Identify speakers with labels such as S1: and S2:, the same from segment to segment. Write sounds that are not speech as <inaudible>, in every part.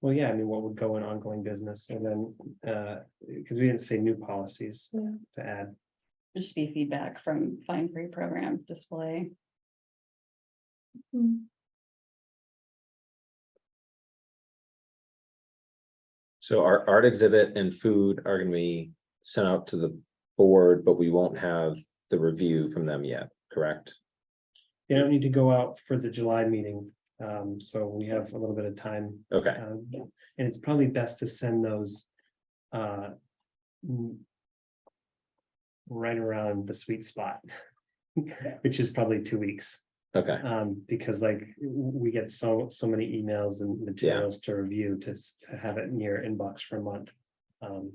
S1: Well, yeah, I mean, what would go in ongoing business and then, uh, because we didn't say new policies
S2: Yeah.
S1: to add.
S2: It should be feedback from fine free program display. Hmm.
S3: So our art exhibit and food are gonna be sent out to the board, but we won't have the review from them yet, correct?
S1: They don't need to go out for the July meeting, um, so we have a little bit of time.
S3: Okay,
S1: um,
S2: Yeah.
S1: And it's probably best to send those. uh, mm, Right around the sweet spot. <laughs> Which is probably two weeks,
S3: okay,
S1: um, because like, w- we get so, so many emails and materials to review to, s- to have it in your inbox for a month. Um,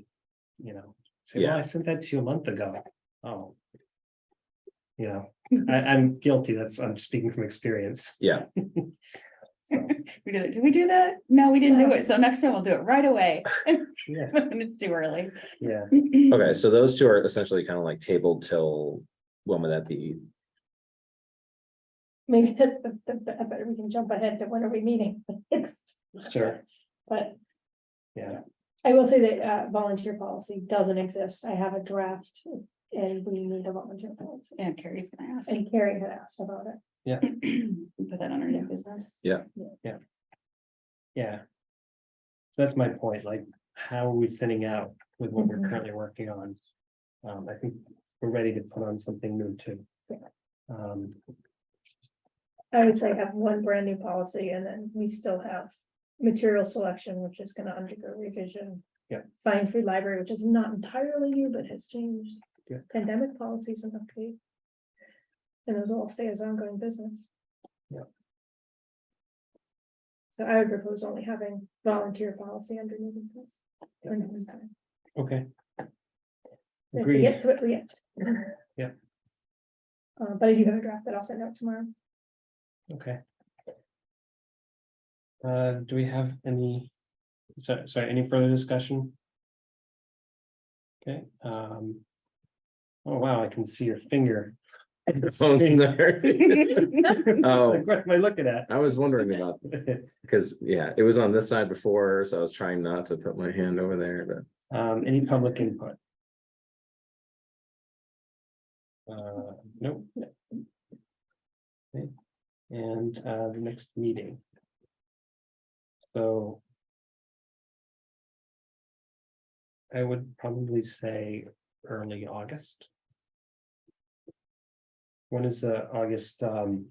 S1: you know, say, well,
S3: Yeah.
S1: I sent that to you a month ago, oh. You know, I, I'm guilty, that's, I'm speaking from experience.
S3: yeah,
S1: So,
S2: We did it. Did we do that? No, we didn't do it. So next time we'll do it right away. <laughs>
S1: yeah,
S2: When it's too early.
S1: yeah.
S3: okay, so those two are essentially kind of like tabled till, when would that be?
S4: Maybe that's the, the, the- I bet we can jump ahead to when are we meeting <laughs> next,
S1: Sure,
S4: but
S1: yeah,
S4: I will say that, uh, volunteer policy doesn't exist. I have a draft. And we need a volunteer policy,
S2: Yeah, Carrie's gonna ask. <clears throat>
S4: and Carrie had asked about it.
S2: Put that on our new business.
S3: Yeah.
S1: yeah. So That's my point, like, how are we thinning out with what we're
S4: Mhm.
S1: currently working on? Um, I think we're ready to put on something new too.
S4: Yeah.
S1: Um,
S4: I would say have one brand new policy and then we still have material selection, which is gonna undergo revision.
S1: Yeah.
S4: Fine food library, which is not entirely new, but has changed.
S1: Yeah.
S4: Pandemic policies and update. And those all stay as ongoing business.
S1: Yeah.
S4: So I would propose only having volunteer policy under new business. for next time.
S1: okay.
S4: If we
S1: Agreed,
S4: get to it, we get. to it.
S1: Yeah.
S4: Uh, but I do have a draft that I'll send out tomorrow.
S1: okay. Uh, do we have any, so, sorry, any further discussion? Okay, um. Oh, wow, I can see your finger. <laughs>
S3: <laughs>
S2: <laughs>
S3: Sorry. Oh.
S1: What am I looking at?
S3: I was wondering about,
S1: <laughs>
S3: because, yeah, it was on this side before, so I was trying not to put my hand over there, but.
S1: Um, any public input? Uh, no. Okay. And, uh, the next meeting. So. I would probably say early August. When is the August, um,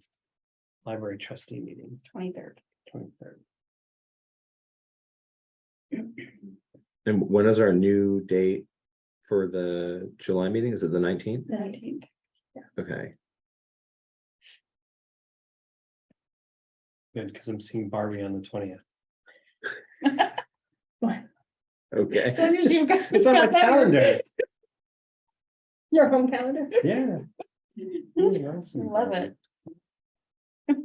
S1: library trustee meeting,
S2: Twenty-third.
S1: twenty-third?
S3: And when is our new date for the July meeting? Is it the nineteenth?
S4: <laughs>
S2: Nineteenth.
S3: Okay,
S1: Good, because I'm seeing Barbie on the twentieth.
S3: okay,
S1: <laughs> It's
S4: <laughs>
S1: on my calendar,
S4: Your home calendar.
S1: yeah.
S2: <laughs>
S1: Ooh, awesome.
S2: Love it.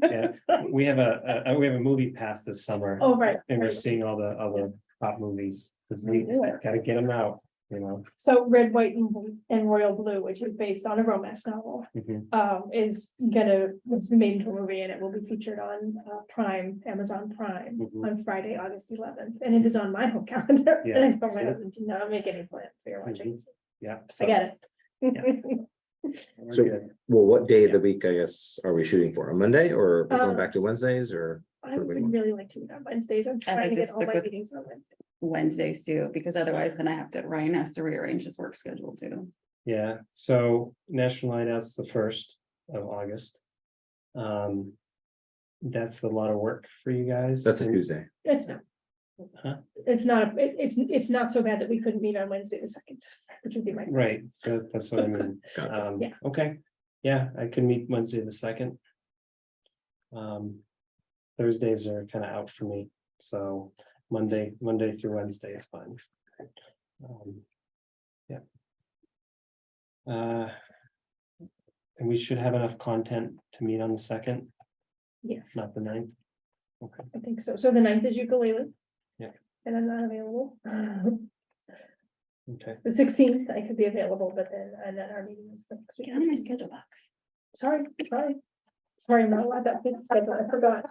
S1: Yeah, we have a, a- a- we have a movie pass this summer.
S4: Oh, right.
S1: And we're
S4: right.
S1: seeing all the, all the top movies. This
S2: We
S1: week,
S2: do it.
S1: gotta get them out, you know.
S4: So Red, White and Blue- and Royal Blue, which is based on a romance novel,
S1: Mhm.
S4: um, is gonna, it's been made into a movie and it will be featured on uh, Prime, Amazon Prime.
S1: Mhm.
S2: Oh,
S4: On Friday, August eleventh, and it is on my home <laughs> calendar. And
S1: Yeah, Mm-hmm.
S4: I told my
S1: see?
S4: husband, "Do not make any plans, so you're watching. this.
S1: Yeah.
S4: I get it.
S1: we're
S3: So-
S1: good.
S3: well, what day of the week, I guess, are we shooting for, a Monday or we're
S4: Uh,
S3: going back to Wednesdays or?
S4: <laughs> I would really like to meet on Wednesdays. I'm trying to
S2: like
S4: get
S2: to
S4: all
S2: stick
S4: my
S2: with-
S4: meetings on Wednesday.
S2: Wednesdays too, because otherwise then I have to, Ryan has to rearrange his work schedule too.
S1: Yeah, so National Night Out's the first of August. Um. That's a lot of work for you guys.
S3: That's a
S1: and-
S3: Tuesday,
S4: It's not.
S1: Huh?
S4: It's not, it- it's, it's not so bad that we couldn't meet on Wednesday the second, which would be my.
S1: Right, so that's what I mean.
S3: Gotcha.
S1: Um,
S4: Yeah.
S1: okay, yeah, I can meet Wednesday the second. Um, Thursdays are kind of out for me, so Monday, Monday through Wednesday is fine. Um, Yeah. Uh. And we should have enough content to meet on the second,
S4: Yes.
S1: not the ninth. Okay,
S4: I think so. So the ninth is ukulele.
S1: Yeah.
S4: And I'm not available. <laughs> The
S1: okay, <laughs>
S4: sixteenth, I could be available, but then, and then our meeting is the next
S2: Get out of my
S4: week.
S2: schedule box.
S4: Sorry, sorry. Sorry, I'm not allowed that. big schedule. I forgot.